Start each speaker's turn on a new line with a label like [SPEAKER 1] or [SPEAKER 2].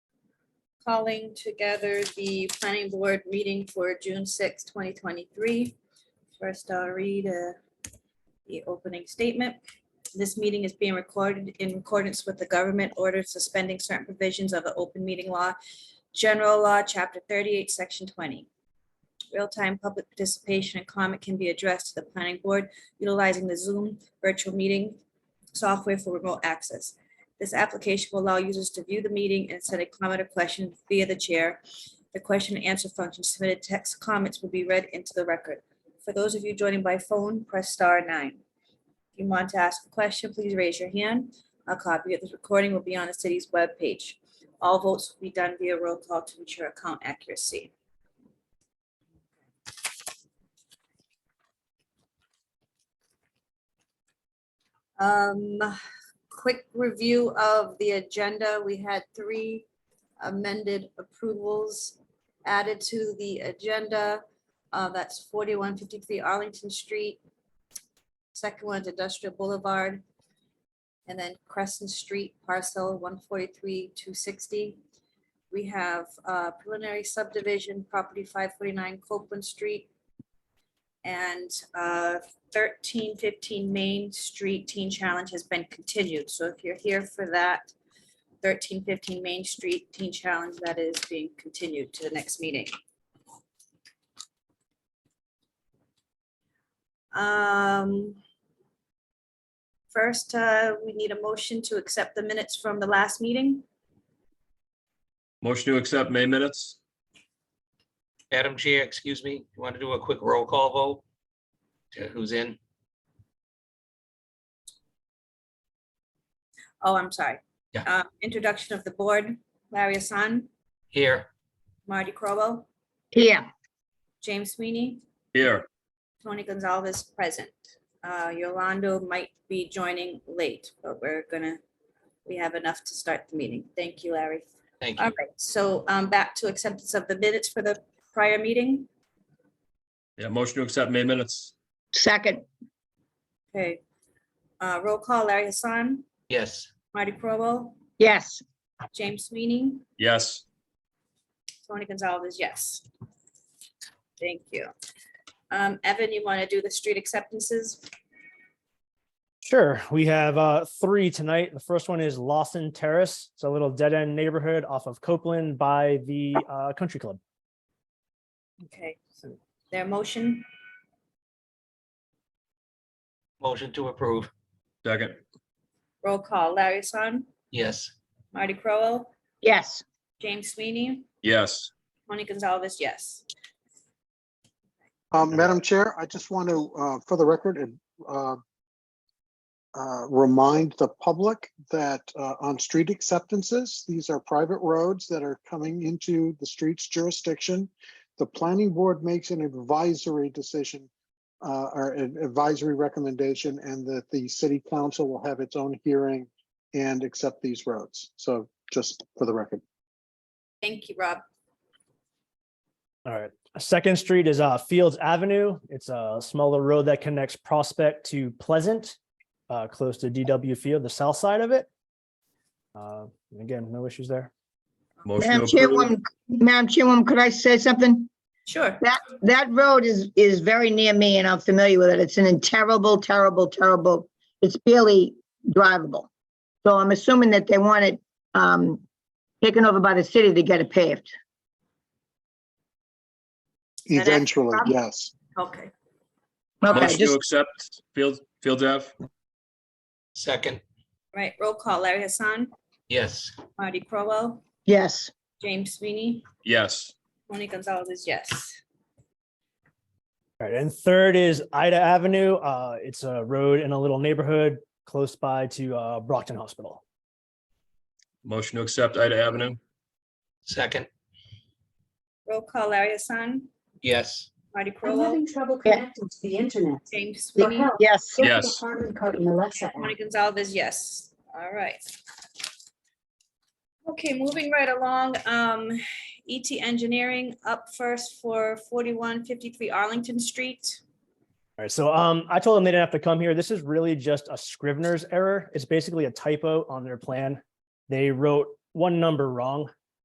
[SPEAKER 1] calling together the planning board meeting for June 6, 2023. First, I'll read uh, the opening statement. This meeting is being recorded in accordance with the government order suspending certain provisions of the open meeting law, general law, chapter 38, section 20. Real-time public participation and comment can be addressed to the planning board utilizing the Zoom virtual meeting software for remote access. This application will allow users to view the meeting and send a comment or question via the chair. The question and answer function submitted text comments will be read into the record. For those of you joining by phone, press star nine. If you want to ask a question, please raise your hand. A copy of this recording will be on the city's webpage. All votes will be done via roll call to ensure account accuracy. Um, quick review of the agenda. We had three amended approvals added to the agenda. Uh, That's forty-one fifty-three Arlington Street. Second one is Industrial Boulevard. And then Crescent Street parcel one forty-three two sixty. We have uh, preliminary subdivision property five forty-nine Copeland Street. And uh, thirteen fifteen Main Street Teen Challenge has been continued, so if you're here for that, thirteen fifteen Main Street Teen Challenge, that is being continued to the next meeting. Um, First, uh, we need a motion to accept the minutes from the last meeting.
[SPEAKER 2] Motion to accept May minutes?
[SPEAKER 3] Madam Chair, excuse me, you want to do a quick roll call vote? To Who's in?
[SPEAKER 1] Oh, I'm sorry.
[SPEAKER 3] Yeah.
[SPEAKER 1] Uh, Introduction of the board, Larry Hassan,
[SPEAKER 3] Here,
[SPEAKER 1] Marty Crowell,
[SPEAKER 4] Yeah,
[SPEAKER 1] James Sweeney,
[SPEAKER 2] Here,
[SPEAKER 1] Tony Gonzalez present. Uh, Yolando might be joining late, but we're gonna, we have enough to start the meeting. Thank you, Larry.
[SPEAKER 3] thank
[SPEAKER 1] All
[SPEAKER 3] you.
[SPEAKER 1] right, so um, back to acceptance of the minutes for the prior meeting.
[SPEAKER 2] yeah, motion to accept May minutes?
[SPEAKER 4] second,
[SPEAKER 1] Okay. Uh, Roll call, Larry Hassan,
[SPEAKER 3] Yes,
[SPEAKER 1] Marty Crowell,
[SPEAKER 4] yes,
[SPEAKER 1] James Sweeney,
[SPEAKER 2] Yes,
[SPEAKER 1] Tony Gonzalez, yes. Thank you. Um, Evan, you want to do the street acceptances?
[SPEAKER 5] Sure. We have uh, three tonight. The first one is Lawson Terrace. It's a little dead end neighborhood off of Copeland by the uh, country club.
[SPEAKER 1] Okay, so their motion,
[SPEAKER 3] motion to approve.
[SPEAKER 2] second,
[SPEAKER 1] roll call, Larry Hassan,
[SPEAKER 3] Yes,
[SPEAKER 1] Marty Crowell,
[SPEAKER 4] yes,
[SPEAKER 1] James Sweeney,
[SPEAKER 2] yes,
[SPEAKER 1] Tony Gonzalez, yes.
[SPEAKER 6] Um, Madam Chair, I just want to, uh, for the record, and, uh, uh, remind the public that, uh, on street acceptances, these are private roads that are coming into the streets jurisdiction. The planning board makes an advisory decision, uh, or an advisory recommendation, and that the city council will have its own hearing and accept these roads. So just for the record.
[SPEAKER 1] Thank you, Rob.
[SPEAKER 5] All right. Second Street is uh, Fields Avenue. It's a smaller road that connects Prospect to Pleasant, uh, close to DW Field, the south side of it. Uh, and Again, no issues there.
[SPEAKER 2] motion
[SPEAKER 4] Madam
[SPEAKER 2] to approve?
[SPEAKER 4] Chairwoman, Madam Chairwoman, could I say something?
[SPEAKER 1] Sure.
[SPEAKER 4] That road is, is very near me and I'm familiar with it. It's in a terrible, terrible, terrible, it's barely drivable. So I'm assuming that they want it, um, taken over by the city to get it paved.
[SPEAKER 1] And that's
[SPEAKER 6] Eventually,
[SPEAKER 1] Rob?
[SPEAKER 6] yes.
[SPEAKER 1] Okay,
[SPEAKER 4] Okay,
[SPEAKER 2] Motion to
[SPEAKER 4] just,
[SPEAKER 2] accept Field, Field F?
[SPEAKER 3] second,
[SPEAKER 1] right, roll call, Larry Hassan,
[SPEAKER 3] yes,
[SPEAKER 1] Marty Crowell,
[SPEAKER 4] yes,
[SPEAKER 1] James Sweeney,
[SPEAKER 2] Yes,
[SPEAKER 1] Tony Gonzalez, yes.
[SPEAKER 5] All right. And third is Ida Avenue. Uh, It's a road in a little neighborhood close by to uh, Brockton Hospital.
[SPEAKER 2] motion to accept Ida Avenue?
[SPEAKER 3] second,
[SPEAKER 1] Roll call, Larry Hassan,
[SPEAKER 3] yes,
[SPEAKER 1] Marty
[SPEAKER 7] I'm
[SPEAKER 1] Crowell,
[SPEAKER 7] having trouble
[SPEAKER 4] Yeah.
[SPEAKER 7] connecting to the internet.
[SPEAKER 1] James
[SPEAKER 7] For
[SPEAKER 1] Sweeney,
[SPEAKER 7] help,
[SPEAKER 4] yes,
[SPEAKER 7] go to
[SPEAKER 2] Yes.
[SPEAKER 7] Department code and Alexa app.
[SPEAKER 1] Tony Gonzalez, yes. All right. Okay, moving right along, um, ET Engineering up first for forty-one fifty-three Arlington Street.
[SPEAKER 5] All right, so um, I told them they didn't have to come here. This is really just a Scrivener's error. It's basically a typo on their plan. They wrote one number wrong.